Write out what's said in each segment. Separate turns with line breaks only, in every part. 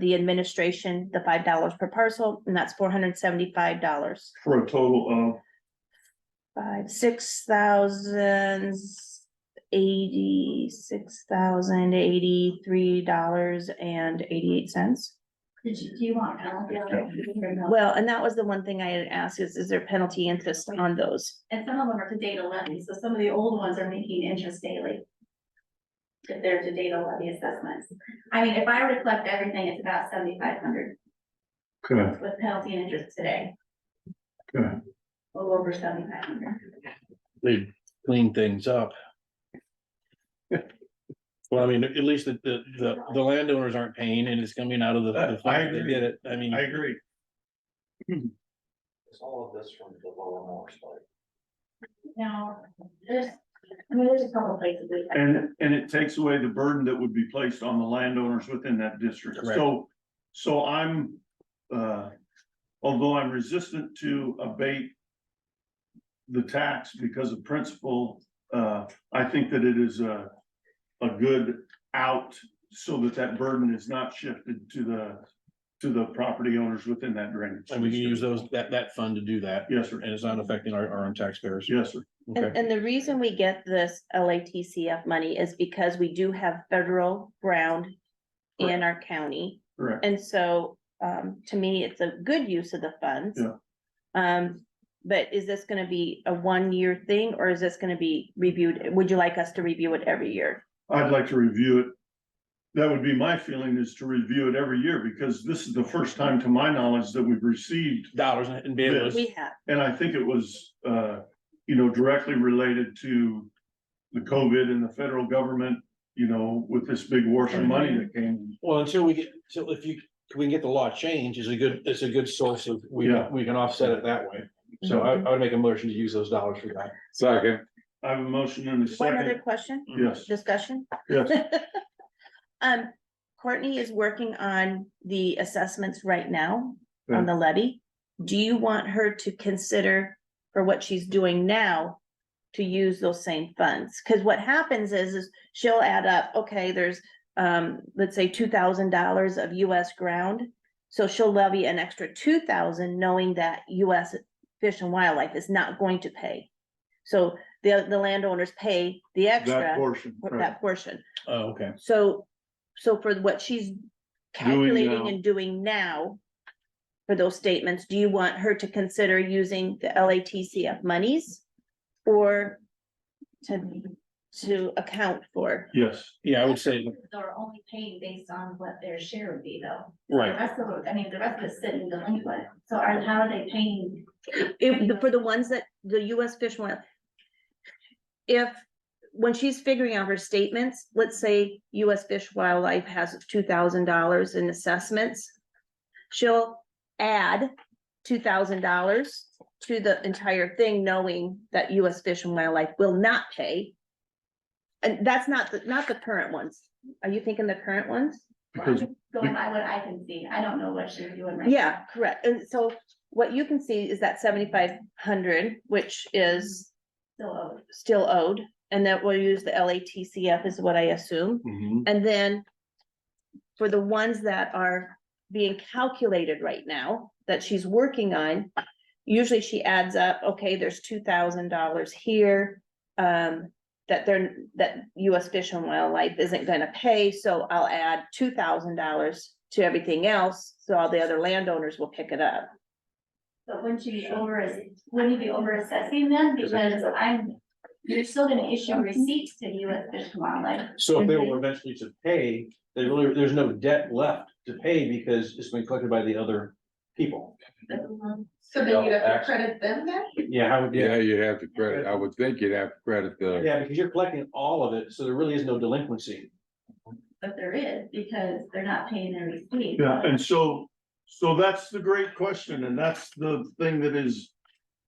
the administration, the five dollars per parcel, and that's four hundred seventy-five dollars.
for a total
Five, six thousand eighty, six thousand eighty-three dollars and eighty-eight cents.
Did you, do you want? penalty on it or no?
Well, and that was the one thing I had asked is, is there penalty interest on those?
And some of them are to data levy, so some of the old ones are making interest daily. If they're to data levy assessments. I mean, if I were to collect everything, it's about seventy-five hundred
of, okay,
with penalty and interest today.
Okay.
A little over seventy-five hundred.
they clean things up. Well, I mean, at least the, the, the, the landowners aren't paying and it's coming out of the, the
I
fact they
agree.
did it, I mean.
I agree.
Is all of this from the lower Morris Lake?
Now, there's, I mean, there's a couple places we.
And, and it takes away the burden that would be placed on the landowners within that district.
Correct.
So, so I'm, uh, although I'm resistant to abate the tax because of principle, uh, I think that it is a, a good out so that that burden is not shifted to the, to the property owners within that drainage.
And we can use
district.
those, that, that fund to do that,
Yes, sir.
and it's not affecting our, our own taxpayers.
Yes, sir.
Okay,
And, and the reason we get this LATCF money is because we do have federal ground in our county.
Correct.
And so, um, to me, it's a good use of the funds.
Yeah.
Um, but is this gonna be a one-year thing, or is this gonna be reviewed? Would you like us to review it every year?
I'd like to review it. That would be my feeling is to review it every year because this is the first time to my knowledge that we've received.
dollars and be able
We
to,
have,
And I think it was, uh, you know, directly related to the COVID and the federal government, you know, with this big war for money that came.
well, until we get, so if you, we can get the law changed, is a good, it's a good source of, we,
Yeah.
we can offset it that way. So I, I would make a motion to use those dollars for that.
Second.
I have a motion and a
one other
second.
question,
Yes,
discussion?
yes.
Um, Courtney is working on the assessments right now on the levy. Do you want her to consider for what she's doing now to use those same funds? Cause what happens is, is she'll add up, okay, there's, um, let's say two thousand dollars of US ground. So she'll levy an extra two thousand, knowing that US Fish and Wildlife is not going to pay. So the, the landowners pay the
That
extra,
portion.
for
right.
that portion.
Oh, okay.
So, so for what she's
now.
calculating and doing now. For those statements, do you want her to consider using the LATCF monies? Or to, to account for?
Yes,
Yeah, I would say,
They're only paying based on what their share would be though. The
right,
rest of, it- I mean, the rest of it's sitting delinquent. So are, how are they paying
If, for the ones that the US Fish and Wild. If, when she's figuring out her statements, let's say US Fish Wildlife has two thousand dollars in assessments. She'll add two thousand dollars to the entire thing, knowing that US Fish and Wildlife will not pay. And that's not, the not the current ones. Are you thinking the current ones?
because
Going by what I can see, I don't know what she's doing right.
Yeah, correct. And so what you can see is that seventy-five hundred, which is
now, Still owed.
still owed, and that we'll use the LATCF is what I assume,
Mhm.
and then. For the ones that are being calculated right now, that she's working on, usually she adds up, okay, there's two thousand dollars here. Um, that they're, that US Fish and Wildlife isn't gonna pay, so I'll add two thousand dollars to everything else, so all the other landowners will pick it up.
But wouldn't you be over, wouldn't you be over assessing them? Because I'm, you're still gonna issue receipts to you at Fish and Wildlife.
So if they were eventually to pay, there really, there's no debt left to pay because it's been collected by the other people.
So then you have to credit them then?
Yeah, how would, yeah,
Yeah, you have to credit, I would think you'd have to credit uh, the,
yeah, because you're collecting all of it, so there really is no delinquency.
But there is, because they're not paying their receipts.
Yeah, and so, so that's the great question, and that's the thing that is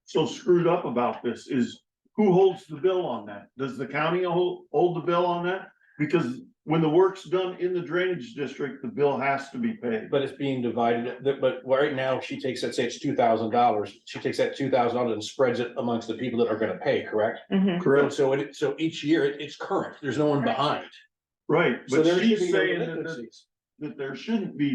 so screwed up about this is who holds the bill on that? Does the county hold, hold the bill on that? Because when the work's done in the drainage district, the bill has to be paid.
But it's being divided, that- but right now, she takes, let's say it's two thousand dollars, she takes that two thousand dollars and spreads it amongst the people that are gonna pay, correct? So it, so each year, it- it's current, there's no one behind.
Right,
So
but
there should
she's
be no
saying that,
delinquencies.
that there shouldn't be